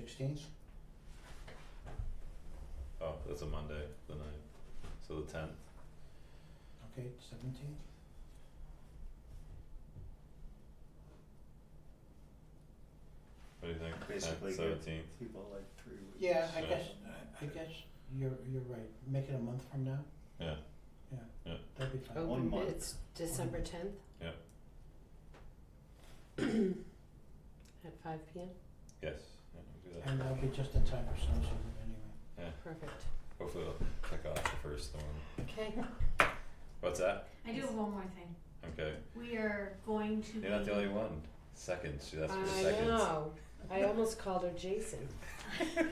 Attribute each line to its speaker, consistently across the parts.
Speaker 1: Sixteenth?
Speaker 2: Oh, that's a Monday, the ninth, so the tenth,
Speaker 1: Okay, seventeenth?
Speaker 2: what do you think,
Speaker 3: Basically,
Speaker 2: tenth,
Speaker 3: good.
Speaker 2: seventeenth,
Speaker 3: people like three weeks.
Speaker 1: Yeah, I
Speaker 2: Sure.
Speaker 1: guess, I guess you're, you're right. Make it a month from now?
Speaker 2: Yeah.
Speaker 1: Yeah.
Speaker 2: Yeah.
Speaker 1: That'd be fine.
Speaker 3: Oh. One
Speaker 4: Open
Speaker 3: month.
Speaker 4: bids, December tenth?
Speaker 2: Yep.
Speaker 4: At five P M,
Speaker 2: yes, yeah, we can do that.
Speaker 1: And that'll be just in time for snow season anyway.
Speaker 4: perfect,
Speaker 2: Hopefully I'll check off the first one,
Speaker 4: okay,
Speaker 2: what's that?
Speaker 5: I do have one more thing.
Speaker 2: Okay,
Speaker 5: We are going to.
Speaker 2: you're not the
Speaker 5: be-
Speaker 2: only one, seconds, she asked for
Speaker 4: I
Speaker 2: seconds.
Speaker 4: know, I almost called her Jason,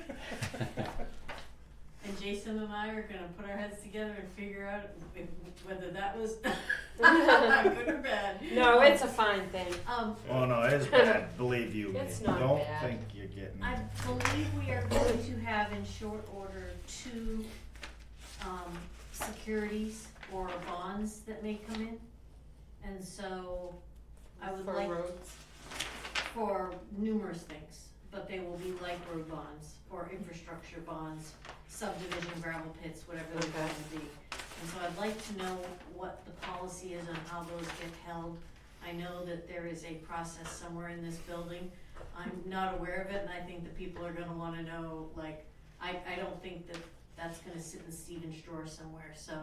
Speaker 5: And Jason and I are gonna put our heads together and figure out if- whether that was good or bad.
Speaker 4: no, it's a fine thing,
Speaker 5: Um,
Speaker 3: Oh no, it's bad. Believe you me.
Speaker 4: It's not
Speaker 3: Don't
Speaker 4: bad.
Speaker 3: think you're getting.
Speaker 5: I believe we are going to have in short order two, um, securities or bonds that may come in. And so I would
Speaker 4: for
Speaker 5: like-
Speaker 4: roads,
Speaker 5: for numerous things, but they will be like road bonds or infrastructure bonds, subdivision gravel pits, whatever they're
Speaker 4: Okay.
Speaker 5: going to be. And so I'd like to know what the policy is on how those get held. I know that there is a process somewhere in this building. I'm not aware of it and I think the people are gonna wanna know, like, I, I don't think that that's gonna sit in Stephen's drawer somewhere, so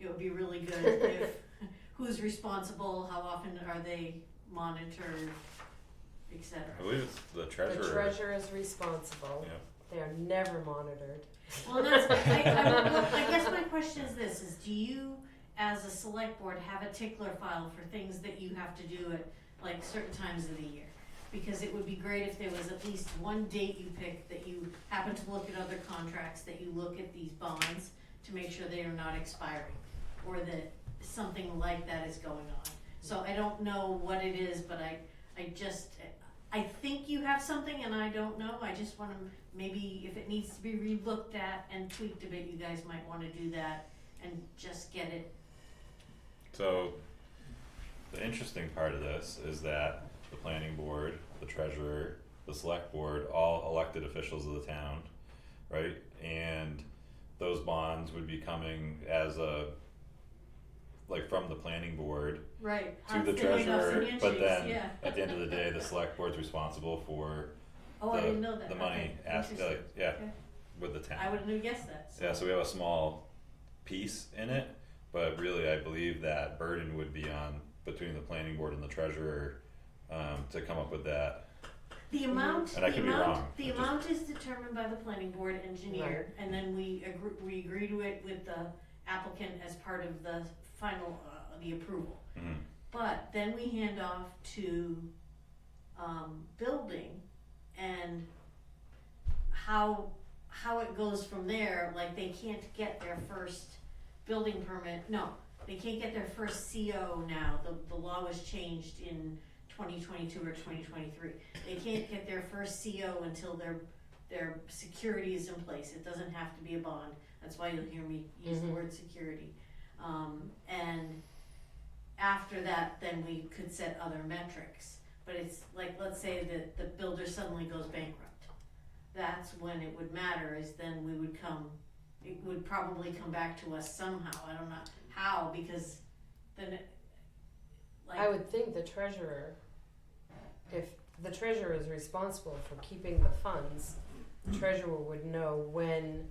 Speaker 5: it would be really good if, who's responsible, how often are they monitored, et cetera.
Speaker 2: I believe it's the
Speaker 4: the
Speaker 2: treasurer,
Speaker 4: treasurer is responsible,
Speaker 2: Yeah.
Speaker 4: they are never monitored.
Speaker 5: Well, that's, I, I, well, I guess my question is this, is do you, as a select board, have a tickler file for things that you have to do at, like, certain times of the year? Because it would be great if there was at least one date you pick that you happen to look at other contracts, that you look at these bonds to make sure they are not expiring, or that something like that is going on. So I don't know what it is, but I, I just, I think you have something and I don't know, I just wanna maybe if it needs to be relooked at and tweaked a bit, you guys might wanna do that and just get it.
Speaker 2: so, the interesting part of this is that the planning board, the treasurer, the select board, all elected officials of the town, right? And those bonds would be coming as a, like from the planning board
Speaker 5: Right.
Speaker 2: to the treasurer, but then
Speaker 5: Yeah.
Speaker 2: at the end of the day, the select board's responsible for
Speaker 5: Oh, I didn't know that.
Speaker 2: the money
Speaker 5: Okay,
Speaker 2: asked,
Speaker 5: interesting.
Speaker 2: like, yeah,
Speaker 5: Okay.
Speaker 2: with the town.
Speaker 5: I wouldn't have guessed that.
Speaker 2: Yeah, so we have a small piece in it, but really I believe that burden would be on between the planning board and the treasurer um to come up with that.
Speaker 5: The amount,
Speaker 2: And I
Speaker 5: the
Speaker 2: could be
Speaker 5: amount,
Speaker 2: wrong. It
Speaker 5: the
Speaker 2: just-
Speaker 5: amount is determined by the planning board engineer, and then we agree, we agree to it with the applicant as part of the final, uh, the approval.
Speaker 2: Mhm.
Speaker 5: But then we hand off to, um, building and how, how it goes from there, like they can't get their first building permit, no, they can't get their first CO now, the, the law was changed in twenty twenty-two or twenty twenty-three. They can't get their first CO until their, their security is in place, it doesn't have to be a bond, that's why you'll hear me use the
Speaker 4: Mhm.
Speaker 5: word security. Um, and after that, then we could set other metrics, but it's like, let's say that the builder suddenly goes bankrupt that's when it would matter is then we would come it would probably come back to us somehow i don't know how because then it, like
Speaker 4: I would think the treasurer, if the treasurer is responsible for keeping the funds, treasurer would know when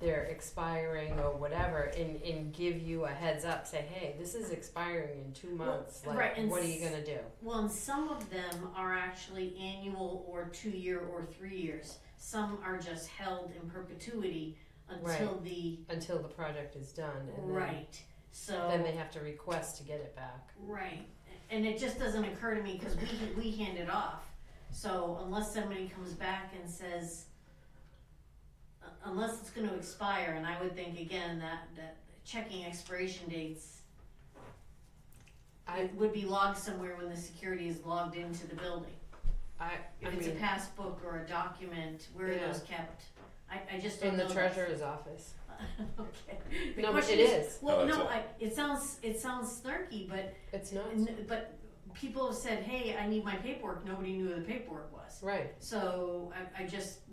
Speaker 4: they're expiring or whatever and, and give you a heads up, say, hey, this is expiring in two
Speaker 5: Well,
Speaker 4: months,
Speaker 5: right,
Speaker 4: like,
Speaker 5: and
Speaker 4: what are you
Speaker 5: s-
Speaker 4: gonna do?
Speaker 5: well and some of them are actually annual or two year or three years some are just held in perpetuity until the
Speaker 4: Until the project is done and then,
Speaker 5: right so
Speaker 4: then they have to request to get it back.
Speaker 5: Right, and it just doesn't occur to me, cause we, we hand it off, so unless somebody comes back and says, u- unless it's gonna expire, and I would think again that, that checking expiration dates
Speaker 4: I,
Speaker 5: would be logged somewhere when the security is logged into the building.
Speaker 4: I, I
Speaker 5: If it's a
Speaker 4: mean,
Speaker 5: passbook or a document, where are
Speaker 4: Yeah.
Speaker 5: those kept? I, I just don't
Speaker 4: in
Speaker 5: know.
Speaker 4: the
Speaker 5: that.
Speaker 4: treasurer's office.
Speaker 5: Okay. The
Speaker 4: No, but
Speaker 5: question
Speaker 4: it is,
Speaker 5: Well,
Speaker 2: No,
Speaker 5: no,
Speaker 2: it's
Speaker 5: I, it sounds, it sounds snarky, but
Speaker 4: it's not,
Speaker 5: N- But people have said, hey, I need my paperwork, nobody knew where the paperwork was.
Speaker 4: right.
Speaker 5: So I, I just,